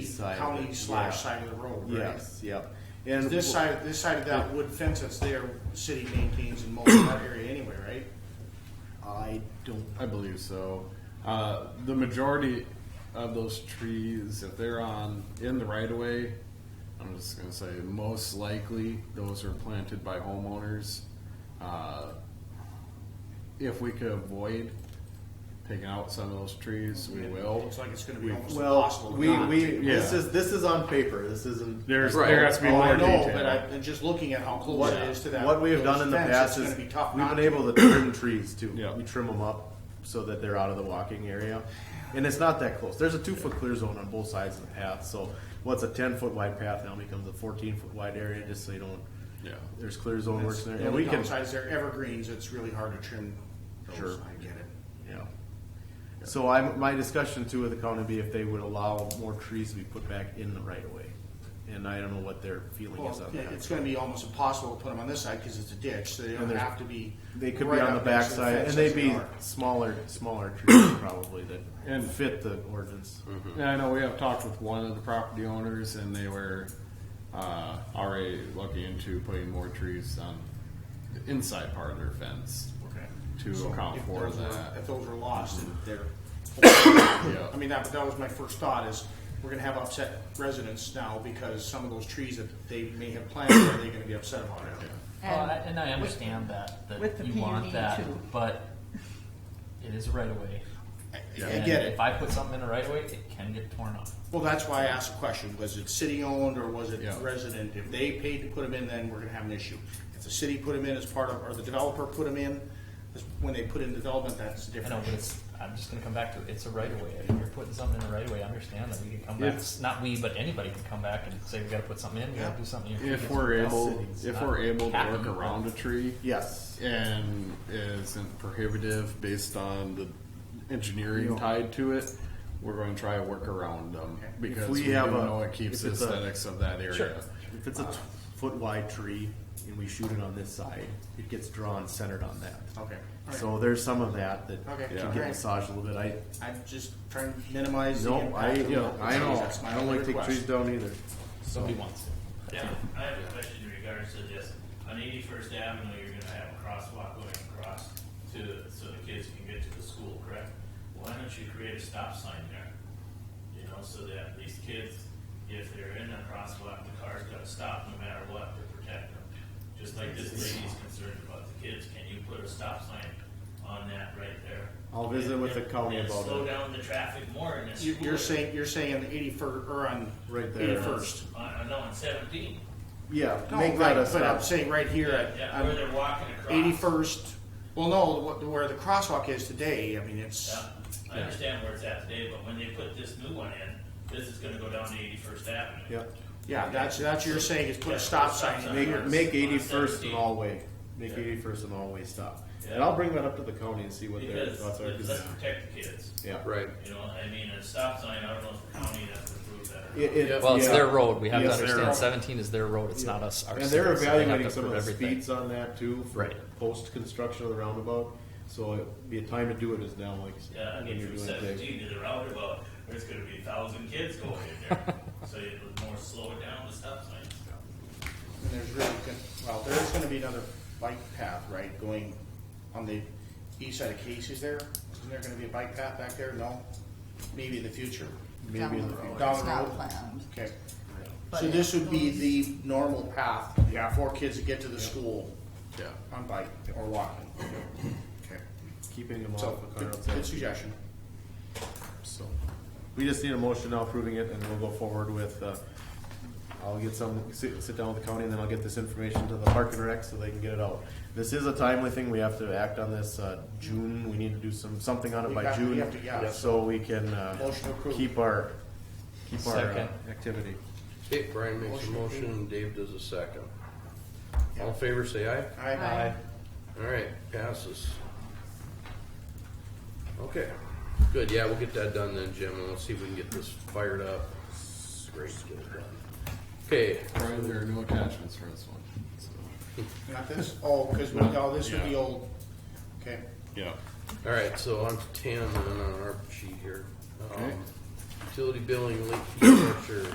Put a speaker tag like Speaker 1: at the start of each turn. Speaker 1: side. of
Speaker 2: county
Speaker 1: it.
Speaker 2: slash
Speaker 1: Yeah.
Speaker 2: side of the road, right?
Speaker 1: Yes, yep. And
Speaker 2: This side, this side of that wood fence that's there, city maintains in most of that area anyway, right?
Speaker 1: I don't.
Speaker 3: I believe so. Uh, the majority of those trees, if they're on in the right of way, I'm just gonna say most likely those are planted by homeowners. Uh, if we could avoid picking out some of those trees, we will.
Speaker 2: Looks like it's gonna be
Speaker 3: We-
Speaker 2: almost impossible. to
Speaker 1: Well, Oh. we
Speaker 2: not
Speaker 1: we
Speaker 2: take-
Speaker 1: this
Speaker 3: Yeah.
Speaker 1: is this is on paper. This isn't.
Speaker 3: There's
Speaker 4: Right.
Speaker 3: there has to be
Speaker 2: Oh,
Speaker 3: more
Speaker 2: I know,
Speaker 3: detail.
Speaker 2: but I, and just looking at how close
Speaker 1: What,
Speaker 2: it is to that.
Speaker 1: what we have
Speaker 2: those
Speaker 1: done in the
Speaker 2: fence,
Speaker 1: past
Speaker 2: it's
Speaker 1: is
Speaker 2: gonna be tough
Speaker 1: we've
Speaker 2: not
Speaker 1: been
Speaker 2: to.
Speaker 1: able to trim trees too.
Speaker 3: Yeah.
Speaker 1: We trim them up so that they're out of the walking area, and it's not that close. There's a two foot clear zone on both sides of the path. So what's a ten foot wide path now becomes a fourteen foot wide area, just so you don't.
Speaker 3: Yeah.
Speaker 1: There's clear zone works in there,
Speaker 2: The
Speaker 1: and we
Speaker 2: only
Speaker 1: can.
Speaker 2: downside is they're evergreens, it's really hard to trim
Speaker 1: Sure.
Speaker 2: those, I get it.
Speaker 1: Yeah. So I, my discussion too with the county would be if they would allow more trees to be put back in the right of way. And I don't know what their feeling is
Speaker 2: Well,
Speaker 1: on
Speaker 2: yeah, it's
Speaker 1: that.
Speaker 2: gonna be almost impossible to put them on this side, cause it's a ditch, so they don't
Speaker 1: And there's-
Speaker 2: have to be.
Speaker 1: They could be
Speaker 2: right
Speaker 1: on the
Speaker 2: up next to
Speaker 1: backside
Speaker 2: fence
Speaker 1: and
Speaker 2: as
Speaker 1: they'd
Speaker 2: they
Speaker 1: be
Speaker 2: are.
Speaker 1: smaller, smaller trees probably that
Speaker 3: And-
Speaker 1: fit the ordinance.
Speaker 2: Mm-hmm.
Speaker 3: Yeah, I know we have talked with one of the property owners, and they were uh, already looking into putting more trees on the inside part of their fence
Speaker 2: Okay.
Speaker 3: to account
Speaker 2: If
Speaker 3: for
Speaker 2: those were- If
Speaker 3: that.
Speaker 2: those are lost, then they're.
Speaker 3: Yeah.
Speaker 2: I mean, that, that was my first thought is, we're gonna have upset residents now because some of those trees that they may have planted, are they gonna be upset about it?
Speaker 5: Well, I-
Speaker 6: And
Speaker 5: and I understand that,
Speaker 6: with
Speaker 5: that
Speaker 6: the
Speaker 5: you want
Speaker 6: PUD
Speaker 5: that,
Speaker 6: too.
Speaker 5: but it is a right of way.
Speaker 2: I
Speaker 5: And
Speaker 2: get it.
Speaker 5: If I put something in a right of way, it can get torn up.
Speaker 2: Well, that's why I asked the question, was it city-owned or was it
Speaker 3: Yeah.
Speaker 2: resident? If they paid to put them in, then we're gonna have an issue. If the city put them in as part of, or the developer put them in, that's- when they put in development, that's
Speaker 5: I know,
Speaker 2: different.
Speaker 5: but it's, I'm just gonna come back to, it. it's a right of way. If you're putting something in a right of way, I understand that we can come back,
Speaker 3: If-
Speaker 5: not we, but anybody can come back and say, we gotta put something in, we gotta
Speaker 2: Yeah.
Speaker 5: do something. here."
Speaker 3: If we're able,
Speaker 5: It's
Speaker 3: if
Speaker 5: not
Speaker 3: we're able to work
Speaker 5: happening.
Speaker 3: around a tree
Speaker 1: Yes.
Speaker 3: and isn't prohibitive based on the engineering tied to it, we're going to try to work around them because
Speaker 1: we
Speaker 3: we,
Speaker 1: have
Speaker 3: do
Speaker 1: a-
Speaker 3: know it keeps the
Speaker 1: if it's a-
Speaker 3: aesthetics of that area.
Speaker 5: Sure.
Speaker 1: If it's a t- foot wide tree and we shoot it on this side, it gets drawn centered on that.
Speaker 2: Okay.
Speaker 1: So there's some of that that
Speaker 2: Okay.
Speaker 1: can
Speaker 2: Yeah.
Speaker 1: get massaged a little bit. I,
Speaker 2: I'm just trying to minimize the
Speaker 1: no, I,
Speaker 2: impact. of the
Speaker 1: I
Speaker 2: trees.
Speaker 1: know,
Speaker 2: That's my
Speaker 1: I don't
Speaker 2: only
Speaker 1: like taking
Speaker 2: request.
Speaker 1: trees down either.
Speaker 5: Somebody wants it.
Speaker 7: Yeah, I have a question in regards to this. On eighty-first avenue, you're gonna have a crosswalk going across to, so the kids can get to the school, correct? Why don't you create a stop sign there? You know, so that these kids, if they're in a crosswalk, the car's gonna stop no matter what to protect them. Just like this lady's concerned about the kids, can you put a stop sign on that right there?
Speaker 1: I'll visit with the
Speaker 7: And-
Speaker 1: county
Speaker 7: and
Speaker 1: about
Speaker 7: Slow
Speaker 1: it.
Speaker 7: down the traffic more in this.
Speaker 2: You- You're
Speaker 7: school area.
Speaker 2: saying, you're saying on the eighty-first, or on
Speaker 1: Right there.
Speaker 2: eighty-first.
Speaker 7: On, Uh, no, on seventeen.
Speaker 1: Yeah,
Speaker 2: No,
Speaker 1: make
Speaker 2: right,
Speaker 1: that a
Speaker 2: but I'm
Speaker 1: stop.
Speaker 2: saying right here at.
Speaker 7: Yeah, where they're walking across.
Speaker 2: Eighty-first, well, no, what- where the crosswalk is today, I mean, it's,
Speaker 7: Yeah, I understand where it's at today, but when they put this new one in, this is gonna go down to eighty-first avenue.
Speaker 1: Yep.
Speaker 2: yeah, that's, that's you're saying is put
Speaker 7: Yeah,
Speaker 2: a stop
Speaker 7: put a stop
Speaker 2: sign
Speaker 7: sign.
Speaker 2: in
Speaker 1: Make,
Speaker 2: here.
Speaker 1: make eighty-first an
Speaker 7: Yeah.
Speaker 1: all-way, make eighty-first an all-way stop. And
Speaker 7: Yeah.
Speaker 1: I'll bring that up to the county and see what their
Speaker 7: Because,
Speaker 1: thoughts are,
Speaker 7: let's
Speaker 1: 'cause-
Speaker 7: let's protect the kids,
Speaker 1: yeah.
Speaker 4: right.
Speaker 7: you know, I mean, a stop sign, I don't know if the county has approved that or not.
Speaker 1: It- it-
Speaker 5: Well, it's
Speaker 1: yeah.
Speaker 5: their road, we have to
Speaker 1: Yes, their
Speaker 5: understand
Speaker 1: road.
Speaker 5: seventeen is their road, it's
Speaker 1: Yeah.
Speaker 5: not us, our
Speaker 1: And
Speaker 5: city,
Speaker 1: they're
Speaker 5: so they have
Speaker 1: evaluating
Speaker 5: to
Speaker 1: some of
Speaker 5: approve
Speaker 1: the
Speaker 5: everything.
Speaker 1: speeds on that too, for
Speaker 5: Right.
Speaker 1: post-construction of the roundabout, so it'd be a time to do it is now, like,
Speaker 7: Yeah, I
Speaker 1: when
Speaker 7: mean,
Speaker 1: you're
Speaker 7: from
Speaker 1: doing it big.
Speaker 7: seventeen to the roundabout, there's gonna be a thousand kids going in there, so it was more slow it down the stop signs.
Speaker 2: And there's really, good- well, there's gonna be another bike path, right, going on the east side of Casey's there? Isn't there gonna be a bike path back there? No? Maybe in the future.
Speaker 1: Maybe in the
Speaker 2: road.
Speaker 1: future.
Speaker 2: Down
Speaker 6: It's
Speaker 2: the
Speaker 6: not
Speaker 2: road.
Speaker 6: planned.
Speaker 2: Okay.
Speaker 6: But
Speaker 2: So
Speaker 6: it
Speaker 2: this would be
Speaker 6: goes-
Speaker 2: the normal path for kids to get to the school
Speaker 3: Yeah.
Speaker 2: on bike or walking. Okay.
Speaker 1: keeping them
Speaker 2: So,
Speaker 1: off the car
Speaker 2: good
Speaker 1: outside.
Speaker 2: good suggestion.
Speaker 1: So, we just need a motion now approving it and we'll go forward with, uh, I'll get some, sit, sit down with the county and then I'll get this information to the park and rec so they can get it out. This is a timely thing, we have to act on this, uh, June, we need to do some, something on it
Speaker 2: We
Speaker 1: by
Speaker 2: have to- we
Speaker 1: June.
Speaker 2: have to, yeah.
Speaker 1: So we can, uh,
Speaker 2: Motion approved.
Speaker 1: keep our, keep our uh,
Speaker 5: Second.
Speaker 1: activity.
Speaker 4: Okay, Brian makes a motion, and Dave does a second. All in favor, say aye.
Speaker 2: Aye.
Speaker 6: Aye.
Speaker 4: All right, passes. Okay, good, yeah, we'll get that done then, Jim, and let's see if we can get this fired up. Great, get it done. Okay,
Speaker 3: Brian, there are no attachments for this one. So,
Speaker 2: Not this? Oh, because, no, this would be
Speaker 3: Yeah.
Speaker 2: old. Okay.
Speaker 3: yeah.
Speaker 4: all right, so on to ten and then on our sheet here. Um, Utility billing, late fee structure,